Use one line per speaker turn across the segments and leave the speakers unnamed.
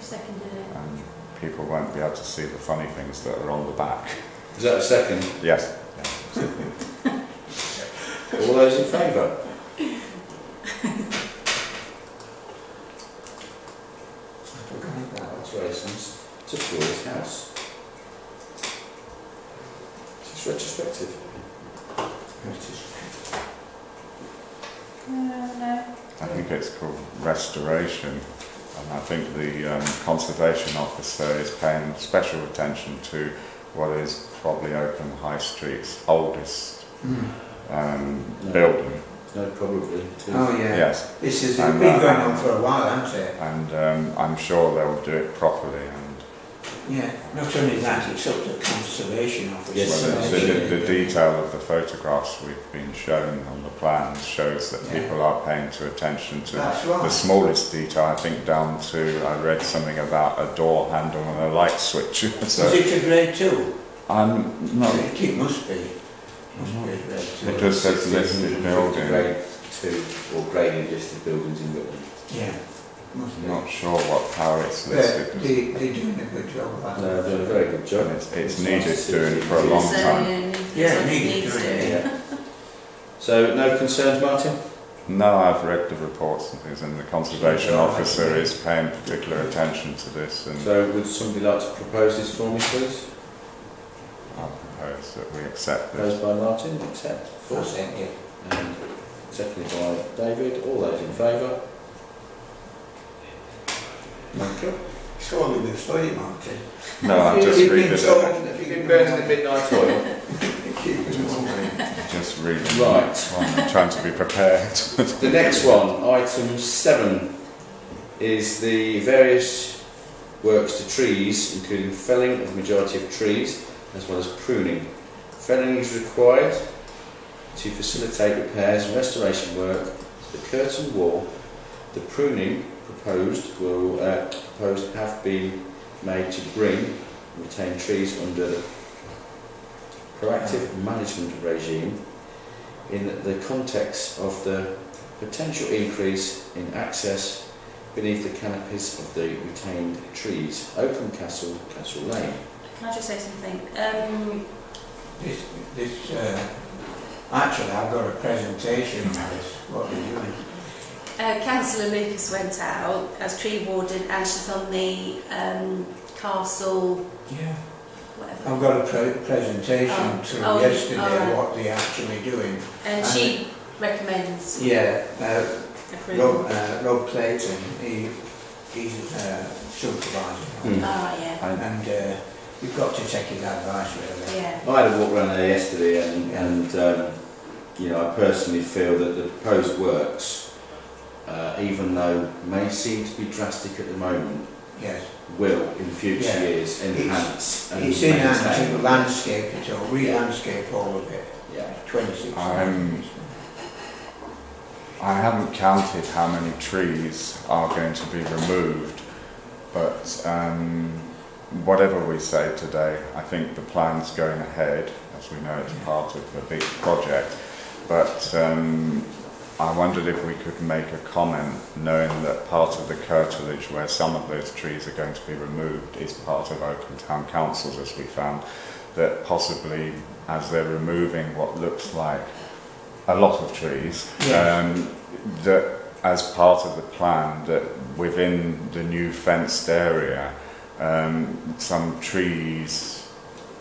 Seconded it.
and people won't be able to see the funny things that are on the back.
Is that a second?
Yes.
All those in favour? Alterations to Floyd's house. It's retrospective.
Uh, no.
I think it's called restoration. And I think the um, conservation officer is paying special attention to what is probably Oakham High Street's oldest um,
No.
building.
No, probably. too.
Oh yeah.
Yes,
This is
And,
it's been
uh,
going on for a while, hasn't it?
and um, I'm sure they'll do it properly. And
Yeah. Not only that, it's up to the conservation officer.
Yes,
well,
so
the,
they
the, the detail of the photographs we've been shown on the plans shows that
Yeah.
people are paying to attention to
That's
the
right.
smallest detail, I think, down to I read something about a door handle and a light switch.
Is
so
it a grade two?
I'm not.
It must be. Must be a grade two.
It just says listed
1650
building.
Grade two or graded listed buildings in Whitland.
Yeah. Must
I'm
be.
not sure what power it's
They're,
listed.
they, they're doing a good job of that.
No, uh, they're doing a very good job.
It's, it's
nice to
needed
see
doing
it.
for a long
so,
time.
Yeah, needs-
Yeah,
it
needed
needs
doing it,
doing.
Yeah. So, no concerns, Martin?
No, I've read the reports and things, and the conservation
Yeah.
officer is paying particular attention to this. And
So, would somebody like to propose this for me, please?
I propose that we accept this.
Proposed by Martin, accept.
Four cent, yeah.
And seconded by David. All those in favour? Thank you.
Surely we've studied, Martin.
No, I'm just
You've
reading
been
it.
told that you've been
midnight oil.
Just reading. it.
Right.
Well, I'm trying to be prepared.
The next one, item seven, is the various works to trees, including felling of majority of trees, as well as pruning. Felling is required to facilitate repairs and restoration work to the curtain wall. The pruning proposed will uh, proposed have been made to bring and retain trees under the proactive management regime in the context of the potential increase in access beneath the canopies of the retained trees. Oakham Castle, Castle Lane.
Can I just say something? Um,
This, this, uh, actually, I've got a presentation on this, what we're doing.
uh, Councillor Lucas went out as tree warden and she's on the um, castle,
Yeah.
whatever.
I've got a pre- presentation
Oh,
through
oh,
yesterday,
alright.
what they're actually doing.
and she recommends
Yeah, uh,
approval.
Rob, uh, Rob Clayton, he, he's, uh, supervising.
Hmm.
Ah, yeah.
And, uh, you've got to take his advice, really.
Yeah.
I had a walk around there yesterday and, and um, you know, I personally feel that the proposed works, uh, even though may seem to be drastic at the moment,
Yes.
will in future
Yeah.
years enhance and
It's in hand
maintain.
to landscape it all, re-landscape all of it,
Yeah.
twenty-six.
I'm- I haven't counted how many trees are going to be removed, but um, whatever we say today, I think the plan's going ahead. As we know, it's part of the big project. But um, I wondered if we could make a comment, knowing that part of the curtilage where some of those trees are going to be removed is part of Oakham Town Council's, as we found, that possibly as they're removing what looks like a lot of trees,
Yes.
um, that as part of the plan, that within the new fenced area, um, some trees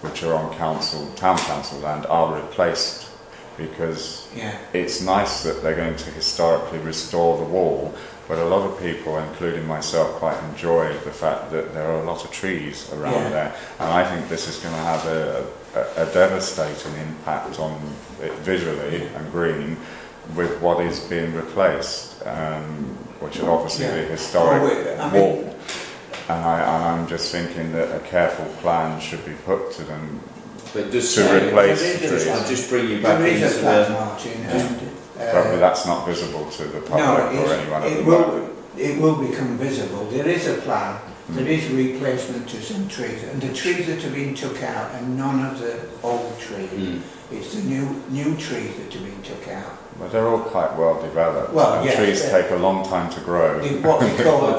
which are on council, town council land are replaced because
Yeah,
it's nice that they're going to historically restore the wall, but a lot of people, including myself, quite enjoy the fact that there are a lot of trees around
Yeah.
there, and I think this is going to have a, a, a devastating impact on it visually and green with what is being replaced, um, which are obviously the
Yeah.
historic
Oh, wait, I mean-
wall. and, I, and I'm just thinking that a careful plan should be put to them.
But just
To
say-
replace the trees.
I'll just bring you back
there
into
is a
the
flat, Martin,
just-
and,
Probably
uh,
that's not visible to the public
it's-
or anyone at
it
the
will-
moment.
it will become visible, there is a plan, there is replacement to some trees, and the trees that have been took out are none of the old trees.
Mm.
Hmm.
It's the new, new trees that have been took out,
But they're all quite well developed.
Well,
and
yes,
trees
yeah.
take a long time to grow.
The- what we call